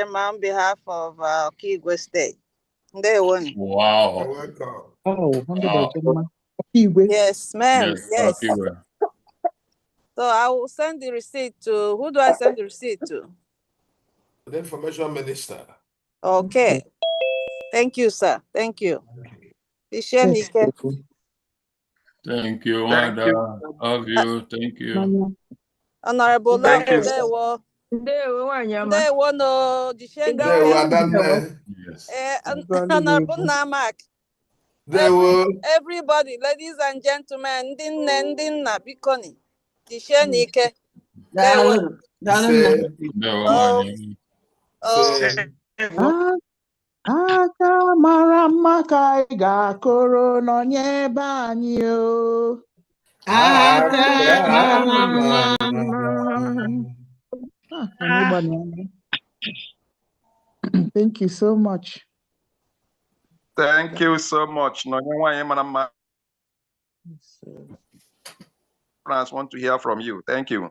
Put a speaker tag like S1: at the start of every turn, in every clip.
S1: them on behalf of uh, Kigwe State. They won.
S2: Wow.
S3: Welcome.
S4: Oh, hundred
S2: Ah.
S4: and gentlemen. Kiwi.
S1: Yes, ma'am.
S2: Yes,
S1: Yes.
S2: okay, well.
S1: So I will send the receipt to, who do I send the receipt to?
S3: The information minister.
S1: Okay. Thank you, sir. Thank you. Ishem
S4: Yes,
S1: Ike.
S4: Kiwi.
S2: Thank you,
S5: Thank you.
S2: Wanda. Of you, thank you.
S1: Honorable Laura
S5: Thank you, sir.
S1: Ndewo.
S6: Ndewo nwaanyị ọma.
S1: Ndewo no. Jishe
S3: They
S1: ngara.
S3: were done there.
S2: Yes.
S1: Eh, hon-
S4: Ndewo.
S1: Honorable Namak.
S3: They were.
S1: Everybody, ladies and gentlemen, ndị nne, ndị nna, biko ni. Jishenụ ike. Ndewo.
S3: Say,
S2: No,
S1: Oh.
S2: man.
S1: Oh,
S3: say,
S4: A- Aka mara mma ka anyị ga-akụrụ n'onye ebe anyị o.
S3: Ah,
S4: Ah, Thank you so much.
S5: Thank you so much. No, you want him and I'm- France want to hear from you. Thank you.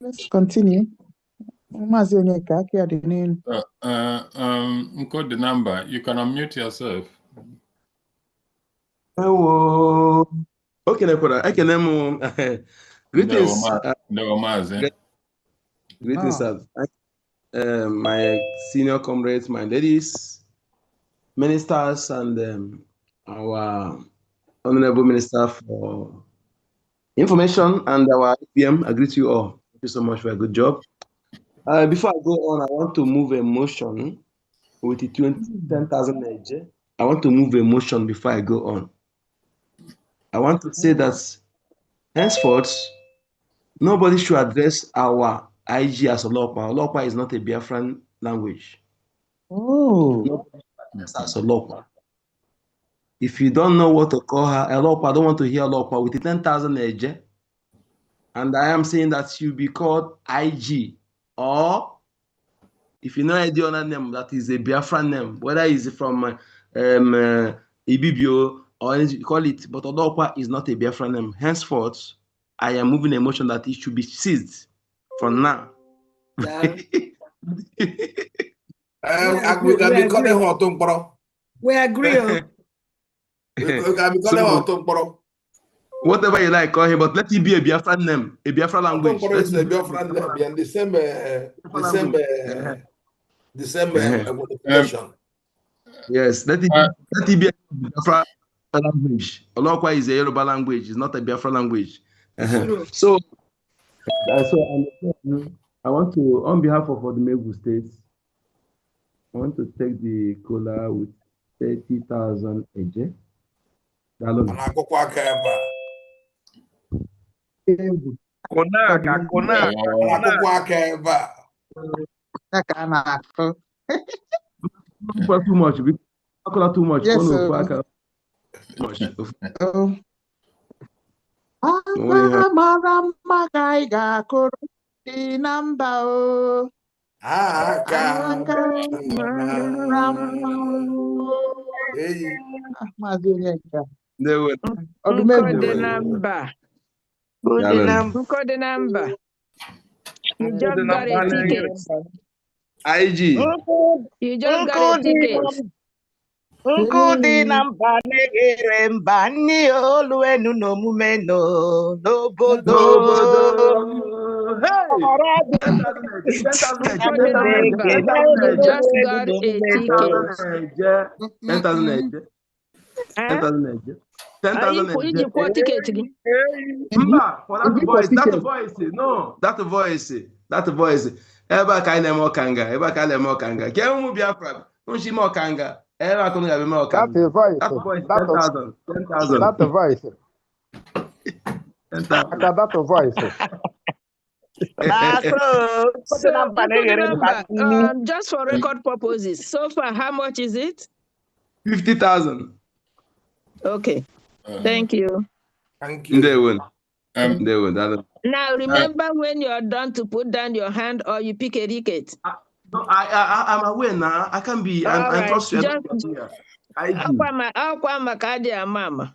S4: Let's continue. Maazị Onyeka, aka ya dị n'elu.
S2: Uh, uh, um, encode the number. You can unmute yourself.
S7: Ewo. O kelekwara, ekele m um, greetings,
S2: Ndewo, ma-
S7: uh,
S2: Ndewo Maazị.
S7: greetings,
S4: Ah.
S7: uh, my senior comrades, my ladies, ministers, and um, our honorable minister for information and our EPM. I greet you all. Thank you so much for a good job. Uh, before I go on, I want to move a motion with the 20 10,000 Naija. I want to move a motion before I go on. I want to say that henceforth, nobody should address our IG as Olokwa. Olokwa is not a Biafran language.
S4: Oh,
S7: That's as Olokwa. If you don't know what to call her, Olokwa, I don't want to hear Olokwa with the 10,000 Naija. And I am saying that she be called IG or if you know any other name that is a Biafran name, whether it's from uh, um, uh, Ibibio or any- you call it, but Odokwa is not a Biafran name. Henceforth, I am moving a motion that it should be seized from now.
S3: Um, I will be calling her tomorrow.
S8: We agree. oh.
S3: I will be calling her tomorrow.
S7: Whatever you like, call him, but let it be a Biafran name, a Biafran language.
S3: Tomorrow is the
S7: Let it be
S3: Biafran name and December, uh, December,
S7: Uh-huh.
S3: December uh, modification.
S7: Yes, let it,
S2: Uh,
S7: let it be a Biafra language. Olokwa is a Yoruba language, it's not a Biafra language. Uh-huh. So, uh, so I'm- I want to, on behalf of Odumegu State, I want to take the cola with 30,000 eje.
S4: Uh-huh.
S3: And I go quack ever.
S4: egwu.
S5: Konaka, Konaka.
S2: Wow.
S3: I go quack ever.
S4: Ya ka a na-akụ.
S7: Cola too much, because- cola too much.
S4: Yes,
S7: Ono
S4: sir.
S7: kwaka- too much.
S4: Oh.
S7: only
S4: Aka mara mma ka anyị ga-akụrụ dị na mba o.
S3: Ah,
S4: Aka mara mma
S3: God.
S4: o.
S3: Hey.
S4: Ah, Maazị Onyeka,
S7: They were-
S4: ọdụmegwu.
S6: Nkọ dị na mba. Nkọ dị na mba. You just got a ticket.
S7: IG,
S6: You just got a ticket.
S9: Nkụ
S6: Hmm.
S9: dị na mba na-eghere mba nne ya olu enu n'omume nọ n'obodo ọra dị
S6: Nkọ dị na mba. You just got a ticket.
S7: 10,000 eje.
S6: Eh? Ah,
S7: 10,000 eje. 10,000
S6: Anyị- Iji
S7: eje.
S6: kwụọ tiketi gị.
S7: Mba, for that
S4: Obi
S7: voice, that
S4: positive.
S7: voice, no, that voice, that voice. Ebe a ka anyị na-eme ọkanga, ebe a ka anyị na-eme ọkanga. Ka ụmụ é um Biafra, nshi ime ọkanga, ebe a ka ụnụ ga-eme ọkanga. That voice, 10,000, 10,000,
S10: That voice,
S7: 10,000.
S10: aka that voice.
S9: na-asụ nkụ dị
S6: So,
S9: na mba
S6: nkọ dị
S9: na-eghere
S6: na
S9: mba
S6: mba.
S9: nne
S6: um, Just for record purposes, so far, how much is it?
S7: 50,000.
S6: Okay,
S2: Uh,
S6: thank you.
S3: Thank you.
S7: Ndewo,
S2: um,
S7: ndewo, daalụ.
S6: Now, remember when you're done to put down your hand or you pick a ticket.
S7: No, I, I, I- I'm aware now. I can be, I,
S6: All
S7: I
S6: right,
S7: trust you.
S6: just-
S7: I do.
S6: ọkwa ma- ọkwa maka adị ama ama